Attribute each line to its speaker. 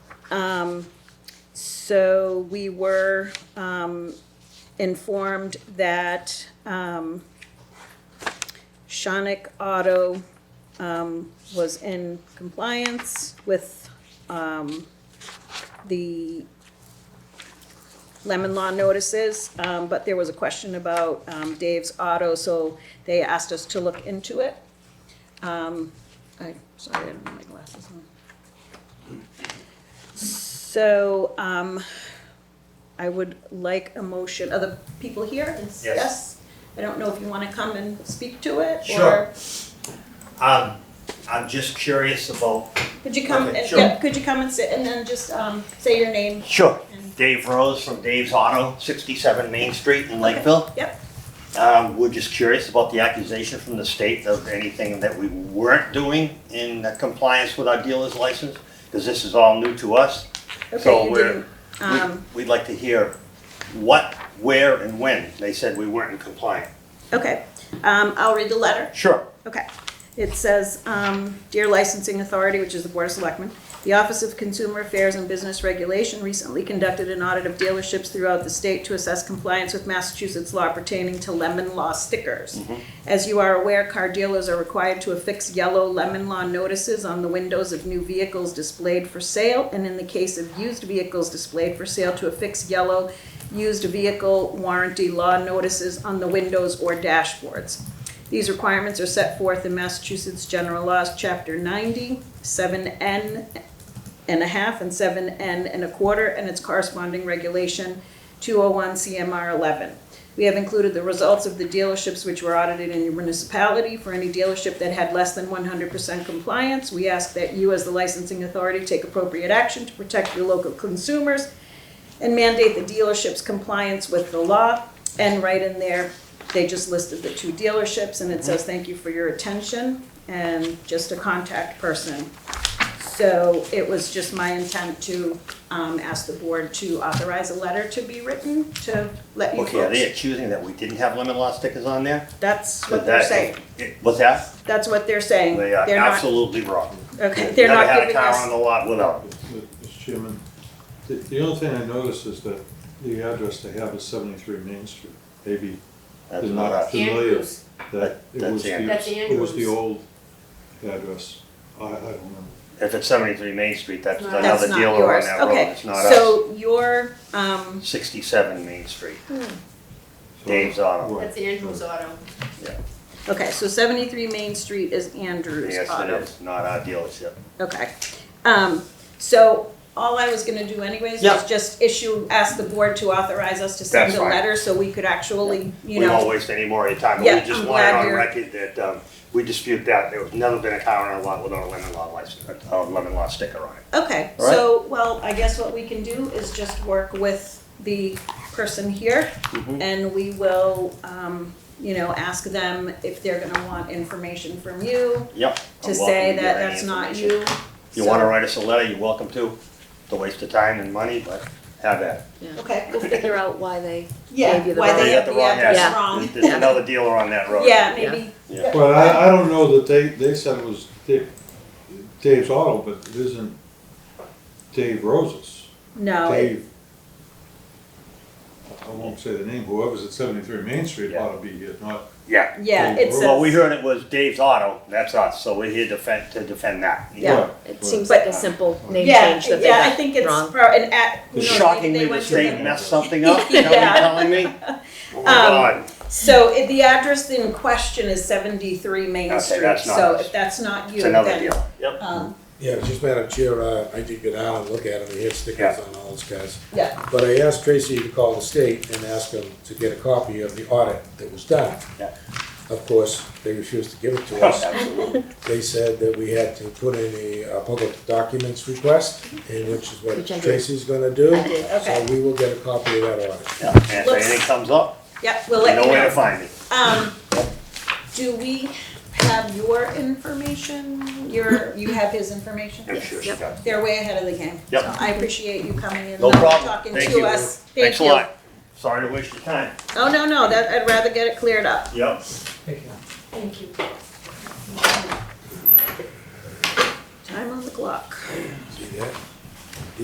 Speaker 1: Um, So we were um, informed that um, Shonick Auto um, was in compliance with um, the lemon law notices, um, but there was a question about um, Dave's auto, so they asked us to look into it. Um, I, sorry, I didn't have my glasses on. So, um, I would like a motion, are the people here?
Speaker 2: Yes. Yes.
Speaker 1: Yes? I don't know if you wanna come and speak to it,
Speaker 2: Sure.
Speaker 1: or,
Speaker 2: Um, I'm just curious about.
Speaker 1: could you come,
Speaker 2: Okay,
Speaker 1: and-
Speaker 2: sure.
Speaker 1: yeah, could you come and sit, and then just, um, say your name?
Speaker 2: Sure.
Speaker 1: and-
Speaker 2: Dave Rose from Dave's Auto, sixty-seven Main Street in Lakeville.
Speaker 1: Yep,
Speaker 2: Um, we're just curious about the accusation from the state of anything that we weren't doing in compliance with our dealer's license, because this is all new to us.
Speaker 1: okay,
Speaker 2: So
Speaker 1: you
Speaker 2: we're,
Speaker 1: didn't,
Speaker 2: we'd,
Speaker 1: um,
Speaker 2: we'd like to hear what, where, and when they said we weren't in compliance.
Speaker 1: okay, um, I'll read the letter.
Speaker 2: Sure.
Speaker 1: Okay. It says, um, Dear Licensing Authority, which is the Board of Selectmen, the Office of Consumer Affairs and Business Regulation recently conducted an audit of dealerships throughout the state to assess compliance with Massachusetts law pertaining to lemon law stickers. As you are aware, car dealers are required to affix yellow lemon law notices on the windows of new vehicles displayed for sale, and in the case of used vehicles displayed for sale, to affix yellow used vehicle warranty law notices on the windows or dashboards. These requirements are set forth in Massachusetts General Laws, Chapter 90, 7N and a half, and 7N and a quarter, and its corresponding regulation, 201 CMR 11. We have included the results of the dealerships which were audited in your municipality. For any dealership that had less than 100% compliance, we ask that you, as the licensing authority, take appropriate action to protect your local consumers and mandate the dealership's compliance with the law. And right in there, they just listed the two dealerships, and it says, thank you for your attention, and just a contact person. So it was just my intent to um, ask the board to authorize a letter to be written to let you
Speaker 2: Okay, are they
Speaker 1: folks.
Speaker 2: accusing that we didn't have lemon law stickers on there?
Speaker 1: That's what they're
Speaker 2: That-
Speaker 1: saying.
Speaker 2: What's that?
Speaker 1: That's what they're saying.
Speaker 2: They are
Speaker 1: They're not,
Speaker 2: absolutely wrong.
Speaker 1: okay, they're not giving
Speaker 2: Never had a car on
Speaker 1: us,
Speaker 2: the lot without.
Speaker 3: Mr. Chairman, the, the only thing I noticed is that the address they have is seventy-three Main Street. Maybe
Speaker 2: That's not us.
Speaker 3: familiar
Speaker 4: Andrews.
Speaker 3: that it
Speaker 2: That's
Speaker 3: was the,
Speaker 2: Andrews.
Speaker 4: That's
Speaker 3: it was the
Speaker 4: Andrews.
Speaker 3: old address. I, I don't remember.
Speaker 2: If it's seventy-three Main Street, that's
Speaker 4: That's
Speaker 2: another
Speaker 1: that's not
Speaker 2: dealer on
Speaker 1: yours.
Speaker 2: that road,
Speaker 1: Okay,
Speaker 2: it's not us.
Speaker 1: so your, um,
Speaker 2: Sixty-seven Main Street,
Speaker 3: So-
Speaker 2: Dave's Auto,
Speaker 3: Right.
Speaker 4: That's Andrews Auto.
Speaker 1: okay, so 73 Main Street is Andrew's
Speaker 2: yes, it
Speaker 1: Auto.
Speaker 2: is, not our dealership.
Speaker 1: Okay, um, so all I was gonna do anyways was
Speaker 2: Yeah.
Speaker 1: just issue, ask the board to authorize us to send
Speaker 2: That's
Speaker 1: a
Speaker 2: fine.
Speaker 1: letter so we could actually,
Speaker 2: We
Speaker 1: you
Speaker 2: won't
Speaker 1: know.
Speaker 2: waste any more of your time,
Speaker 1: Yeah,
Speaker 2: but we just
Speaker 1: I'm
Speaker 2: want it
Speaker 1: glad
Speaker 2: on
Speaker 1: you're-
Speaker 2: record that, um, we dispute that, there's never been a car on our lot without a lemon law license, a lemon law sticker on it.
Speaker 1: Okay,
Speaker 2: All right.
Speaker 1: so, well, I guess what we can do is just work with the person here
Speaker 2: Mm-hmm.
Speaker 1: and we will, um, you know, ask them if they're gonna want information from you
Speaker 2: Yep.
Speaker 1: to
Speaker 2: I'm
Speaker 1: say
Speaker 2: welcome give
Speaker 1: that
Speaker 2: any
Speaker 1: that's not
Speaker 2: information.
Speaker 1: you.
Speaker 2: You
Speaker 1: So-
Speaker 2: wanna write us a letter, you're welcome to, it's a waste of time and money, but have at it.
Speaker 1: Okay,
Speaker 5: We'll figure out why they,
Speaker 1: yeah,
Speaker 5: Gave you the
Speaker 1: why
Speaker 5: wrong-
Speaker 1: they
Speaker 2: They got
Speaker 1: have
Speaker 2: the
Speaker 1: the
Speaker 2: wrong
Speaker 1: address
Speaker 5: address.
Speaker 1: wrong.
Speaker 2: There's another dealer on that road.
Speaker 1: Yeah,
Speaker 5: Yeah.
Speaker 1: maybe,
Speaker 2: Yeah.
Speaker 3: Well, I, I don't know that they, they said it was Da- Dave's Auto, but it isn't Dave Rose's.
Speaker 1: no, it-
Speaker 3: Dave. I won't say the name, whoever's at seventy-three Main Street
Speaker 2: Yeah.
Speaker 3: ought to be here, not
Speaker 2: Yeah.
Speaker 1: yeah, it says.
Speaker 2: Well, we heard it was Dave's Auto, that's us, so we're here defend, to defend that.
Speaker 1: Yeah.
Speaker 3: Right,
Speaker 5: it
Speaker 3: right.
Speaker 5: seems
Speaker 1: But-
Speaker 5: like a simple name
Speaker 1: Yeah,
Speaker 5: change that they
Speaker 1: yeah, I
Speaker 5: got
Speaker 1: think it's
Speaker 5: wrong.
Speaker 1: pro- and at, who
Speaker 2: It's
Speaker 1: knows, maybe
Speaker 2: shockingly,
Speaker 1: they
Speaker 2: the
Speaker 1: went to the.
Speaker 2: state messed something up, you know what
Speaker 1: Yeah.
Speaker 2: you're telling me? Oh, my God.
Speaker 1: So if the address in question is seventy-three Main
Speaker 2: Okay,
Speaker 1: Street,
Speaker 2: that's not
Speaker 1: so
Speaker 2: us.
Speaker 1: if that's not you,
Speaker 2: It's
Speaker 1: then.
Speaker 2: another deal. Yep.
Speaker 1: Um,
Speaker 6: Yeah, just Madam Chair, uh, I did go down and look at them, he had stickers on all those guys.
Speaker 1: yeah,
Speaker 6: But I asked Tracy to call the state and ask them to get a copy of the audit that was done.
Speaker 2: Yeah.
Speaker 6: Of course, they refused to give it to us.
Speaker 2: Absolutely.
Speaker 6: They said that we had to put in a uh, public documents request, and which is what
Speaker 5: Which I did.
Speaker 6: Tracy's gonna do.
Speaker 5: I did,
Speaker 1: okay.
Speaker 6: So we will get a copy of that audit.
Speaker 2: Yeah. And if anything comes up,
Speaker 1: yeah, we'll
Speaker 2: you
Speaker 1: let
Speaker 2: know
Speaker 1: you
Speaker 2: where to
Speaker 1: know.
Speaker 2: find me.
Speaker 1: Um, do we have your information? Your, you have his information?
Speaker 2: I'm sure she
Speaker 5: Yep.
Speaker 2: does.
Speaker 1: They're way ahead of the game.
Speaker 2: Yep.
Speaker 1: So I appreciate you coming in,
Speaker 2: No
Speaker 1: and
Speaker 2: problem.
Speaker 1: talking
Speaker 2: Thank
Speaker 1: to
Speaker 2: you.
Speaker 1: us. Thank
Speaker 2: Thanks a
Speaker 1: you.
Speaker 2: lot. Sorry to waste your time.
Speaker 1: Oh, no, no, that, I'd rather get it cleared up.
Speaker 2: Yep.
Speaker 4: Thank you.
Speaker 1: Time on the clock.
Speaker 6: See that?